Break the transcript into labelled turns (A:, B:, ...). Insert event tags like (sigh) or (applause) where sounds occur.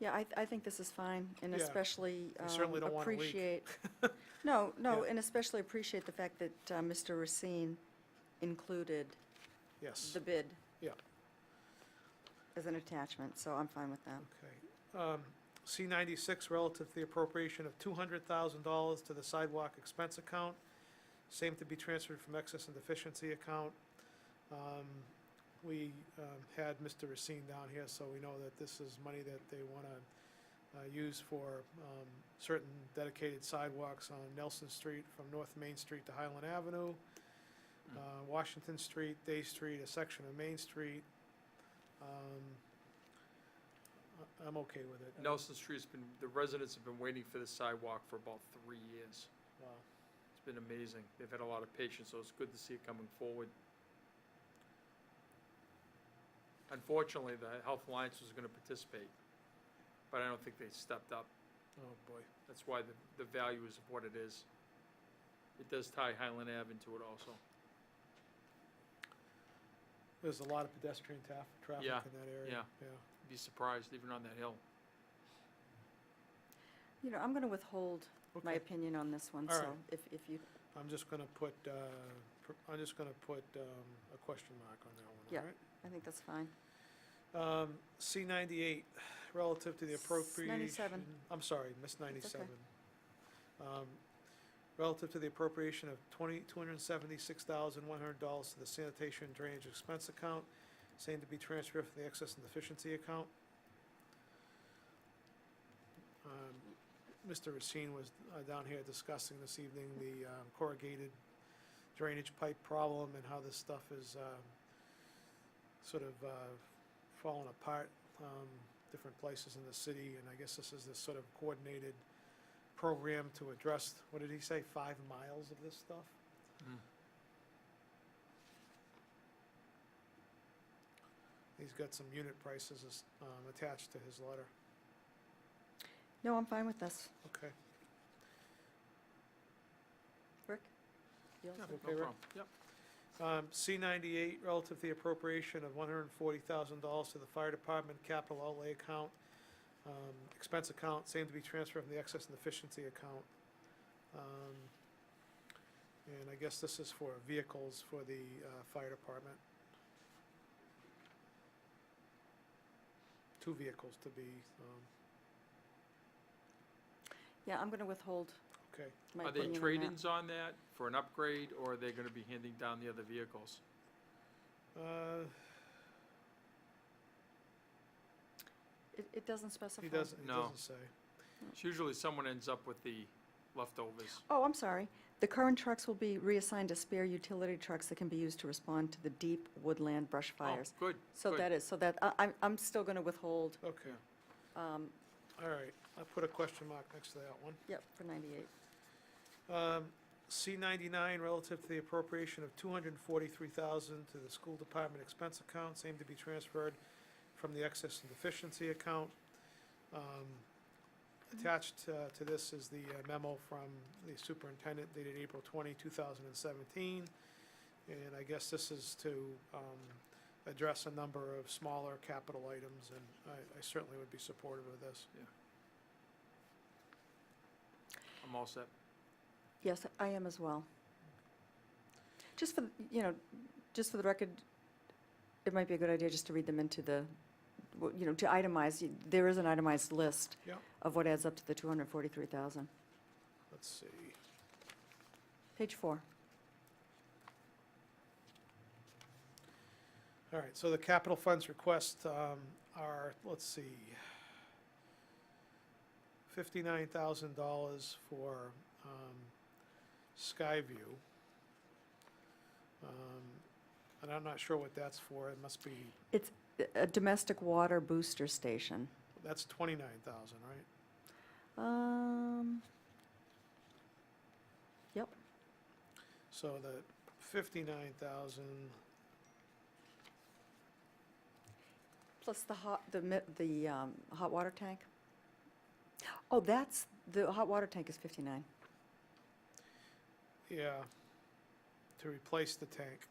A: Yeah, I, I think this is fine, and
B: Yeah.
A: especially
B: We certainly
A: um,
B: don't want a leak.
A: appreciate.
B: (laughs)
A: No, no,
B: Yeah.
A: and especially appreciate the fact that uh, Mr. Racine included
B: Yes,
A: the bid
B: yeah,
A: as an attachment, so I'm fine with that.
B: okay. Um, C ninety-six, relative to the appropriation of two hundred thousand dollars to the sidewalk expense account, same to be transferred from excess and deficiency account. Um, We um, had Mr. Racine down here, so we know that this is money that they want to use for um, certain dedicated sidewalks on Nelson Street from North Main Street to Highland Avenue,
C: Mm.
B: uh, Washington Street, Day Street, a section of Main Street. Um, I- I'm okay with it.
C: Nelson Street's been, the residents have been waiting for the sidewalk for about three years.
B: Wow.
C: It's been amazing. They've had a lot of patience, so it's good to see it coming forward. Unfortunately, the Health Alliance was gonna participate, but I don't think they stepped up.
B: Oh, boy.
C: That's why the, the value is what it is. It does tie Highland Ave into it also.
B: There's a lot of pedestrian taf- traffic in
C: Yeah,
B: that area.
C: yeah.
B: Yeah.
C: Be surprised, even on that hill.
A: You know, I'm going to withhold my
B: Okay.
A: opinion on this one,
B: All
A: so
B: right.
A: if, if you,
B: I'm just gonna put, uh, pr- I'm just gonna put um, a question mark on that one,
A: Yeah.
B: all right?
A: I think that's fine.
B: Um, C ninety-eight, (sighs) relative to the
A: S-
B: appropriation.
A: 97.
B: I'm sorry, missed
A: It's okay.
B: ninety-seven. Um, Relative to the appropriation of twenty, two hundred and seventy-six thousand, one hundred dollars to the sanitation and drainage expense account, same to be transferred from the excess and deficiency account. Um, Mr. Racine was uh, down here discussing this evening the um, corrugated drainage pipe problem and how this stuff is, um, sort of, uh, falling apart, um, different places in the city, and I guess this is this sort of coordinated program to address, what did he say, five miles of this stuff?
C: Mm.
B: He's got some unit prices, as, um, attached to his letter,
A: No, I'm fine with this.
B: okay.
A: Rick? You all
C: Yeah,
A: set?
C: no
B: Okay, Rick?
C: problem. Yep.
B: Um, C ninety-eight, relative to the appropriation of one hundred and forty thousand dollars to the fire department capital outlay account, um, expense account, same to be transferred from the excess and efficiency account. Um, and I guess this is for vehicles for the, uh, fire department. Two vehicles to be, um,
A: Yeah, I'm going to withhold
B: okay,
A: my
C: Are they
A: opinion on that.
C: trade-ins on that for an upgrade, or are they gonna be handing down the other vehicles?
B: uh,
A: It, it doesn't specify.
B: he doesn't, he
C: No.
B: doesn't say.
C: It's usually someone ends up with the leftovers.
A: Oh, I'm sorry. The current trucks will be reassigned to spare utility trucks that can be used to respond to the deep woodland brush
C: Oh,
A: fires.
C: Good.
A: So
C: good.
A: that is, so that, I- I'm, I'm still going to withhold,
B: Okay,
A: um,
B: all right, I'll put a question mark next to that one.
A: yep, for 98.
B: Um, C ninety-nine, relative to the appropriation of two hundred and forty-three thousand to the school department expense account, same to be transferred from the excess and deficiency account. Um, Attached uh, to this is the uh, memo from the superintendent dated April 20, 2017, And I guess this is to, um, address a number of smaller capital items, and I, I certainly would be supportive of this.
C: I'm all set.
A: Yes, I am as well. Just for, the- you know, just for the record, it might be a good idea just to read them into the, w- you know, to itemize. You- There is an itemized list
B: Yeah.
A: of what adds up to the 243,000.
B: Let's see.
A: Page four.
B: All right, so the capital funds request um, are, let's see, fifty-nine thousand dollars for um, Skyview. Um, And I'm not sure what that's for, it must be,
A: A- A domestic water booster station.
B: that's twenty-nine thousand, right?
A: Um,
B: So the fifty-nine thousand,
A: plus the hot, the, mi- the um, hot water tank. Oh, that's, the hot water tank is 59.
B: yeah, to replace the tank.